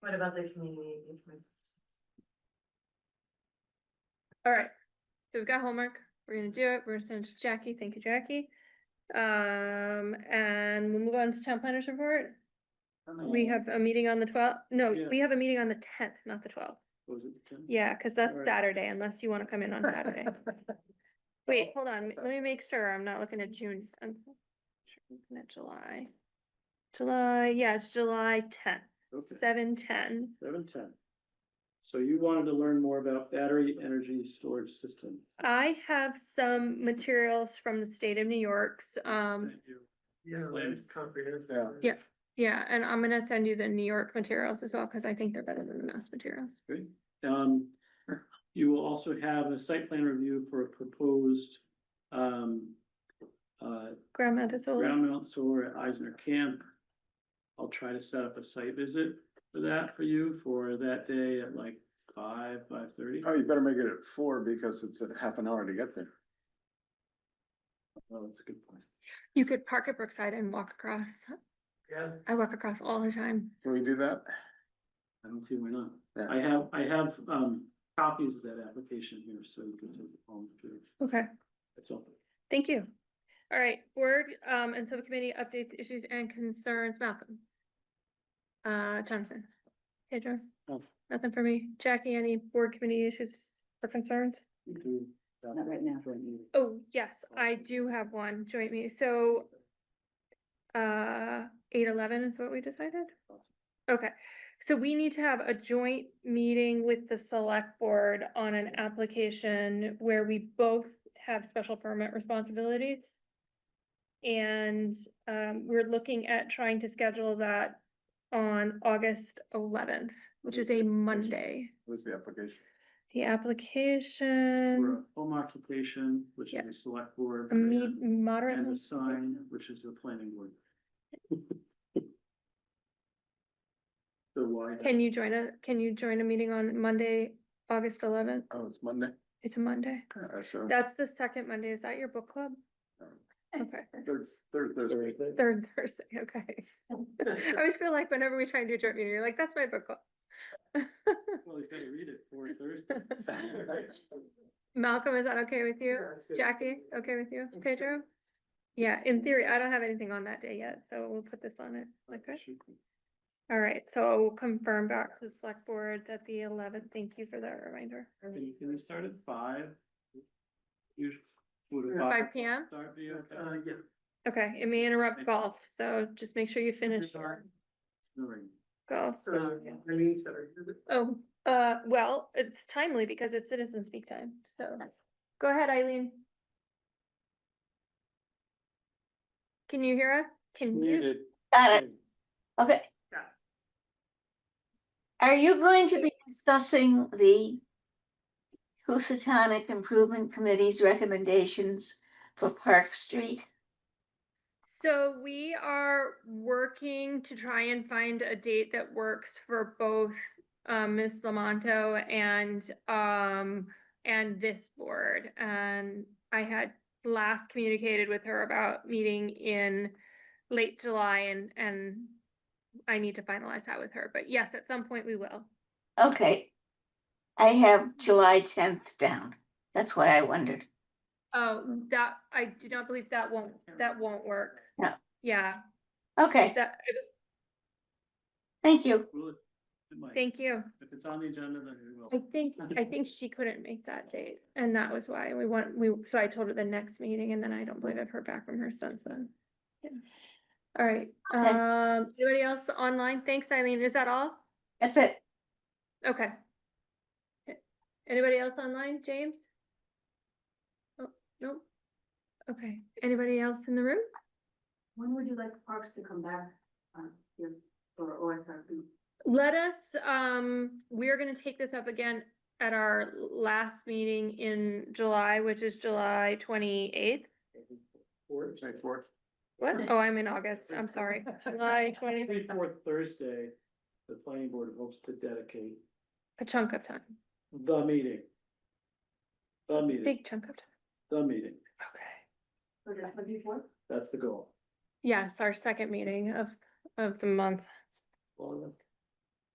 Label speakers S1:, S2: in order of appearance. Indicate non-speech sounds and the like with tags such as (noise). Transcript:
S1: What about the community engagement?
S2: All right, so we've got homework, we're gonna do it, we're gonna send it to Jackie, thank you, Jackie. Um, and we'll move on to town planners report. We have a meeting on the twelfth, no,
S3: Oh. Yeah.
S2: we have a meeting on the tenth, not the twelfth.
S3: Was it the 10th?
S2: Yeah, cause that's
S3: Alright.
S2: Saturday, unless you wanna come in on
S3: (laughs)
S2: Saturday. Wait,
S3: Oh.
S2: hold on, let me make sure, I'm not looking at June, I'm looking at July. July, yeah, it's July tenth,
S3: Okay,
S2: seven ten.
S3: seven ten. So you wanted to learn more about battery energy storage systems.
S2: I have some materials from the state of New York's, um.
S3: Yeah,
S4: it's
S3: comprehensive.
S2: Yeah. Yeah, and I'm gonna send you the New York materials as well, cause I think they're better than the mass materials.
S3: Great. Um, you will also have a site plan review for a proposed, um, uh,
S2: Ground mounted solar,
S3: ground mount solar at Eisner Camp. I'll try to set up a site visit for that for you for that day at like five, five thirty.
S4: Oh, you better make it at four because it's a half an hour to get there.
S3: Well, Oh, that's a good point.
S2: you could park at Brookside and walk across.
S3: Yeah.
S2: I walk across all the time.
S4: Can we do that?
S3: I don't see why not.
S4: Yeah.
S3: I have, I have, um, copies of that application here, so you can take it home if you
S2: Okay,
S3: That's all.
S2: thank you. All right, board, um, and subcommittee updates, issues and concerns, Malcolm. Uh, Jonathan. Pedro,
S3: Oh.
S2: nothing for me. Jackie, any board committee issues or concerns?
S1: Not right now.
S2: Oh, yes, I do have one joint meeting, so. Uh, eight eleven is what we decided? Okay, so we need to have a joint meeting with the select board on an application where we both have special permit responsibilities. And, um, we're looking at trying to schedule that on August eleventh, which is a Monday.
S4: What's the application?
S2: The application,
S3: For a home occupation, which is
S2: Yeah.
S3: a select board.
S2: Um, a me-
S3: and-
S2: moderate.
S3: And a sign, which is a planning board. So why?
S2: Can you join a, can you join a meeting on Monday, August eleventh?
S4: Oh, it's uh, Monday.
S2: It's a Monday.
S4: I saw.
S2: That's the second Monday. Is that your book club? Okay,
S4: Third, third Thursday.
S2: third Thursday, (laughs) okay. I always feel like whenever we try and do a joint meeting, you're like, that's my book club.
S3: Well, he's gotta read it for
S2: (laughs)
S3: Thursday.
S2: Malcolm, is that okay with you?
S3: Yeah, that's good.
S2: Jackie, okay with you? Pedro? Yeah, in theory, I don't have anything on that day yet, so we'll put this on it. Like, good. All right, so I will confirm back to the select board that the eleventh, thank you for that reminder.
S3: Can can we start at five? You would.
S2: Five PM?
S3: Start be
S1: Uh,
S3: okay? Uh, Yeah.
S2: Okay, it may interrupt
S3: Thank-
S2: golf, so just make sure you finish
S3: Sorry. It's no ring.
S2: golf.
S3: yeah.
S2: Oh, uh, well, it's timely because it's citizen speak time, so go ahead, Eileen. Can you hear us? Can you?
S3: Muted.
S5: Got it, okay.
S1: Yeah.
S5: Are you going to be discussing the Housatonic Improvement Committee's recommendations for Park Street?
S2: So we are working to try and find a date that works for both um Ms. Lamonto and um and this board. And I had last communicated with her about meeting in late July and and I need to finalize that with her, but yes, at some point we will.
S5: Okay. I have July tenth down. That's why I wondered.
S2: Oh, that, I do not believe that won't, that won't work.
S5: No.
S2: Yeah,
S5: Okay,
S2: that,
S5: thank you.
S3: Will it- it might.
S2: thank you.
S3: If it's on the agenda, then we will.
S2: I think, I think she couldn't make that date, and that was why we want, we, so I told her the next meeting, and then I don't believe I've heard back from her since then. Yeah. All right,
S5: Okay.
S2: um, anybody else online? Thanks, Eileen, is that all?
S5: That's it.
S2: Okay. Okay. Anybody else online, James? Oh, no? Okay, anybody else in the room?
S1: When would you like parks to come back, uh, here, or, or if I'd be-
S2: Let us, um, we're gonna take this up again at our last meeting in July, which is July twenty-eighth.
S3: Fourth.
S4: May fourth.
S2: What? Oh, I'm in August, I'm sorry. July twenty,
S3: Every fourth Thursday, the planning board hopes to dedicate
S2: a chunk of time,
S3: the meeting. The meeting,
S2: big chunk of time.
S3: the meeting,
S2: Okay.
S1: or just the before?
S3: that's the goal.
S2: Yes, our second meeting of, of the month.
S3: Well,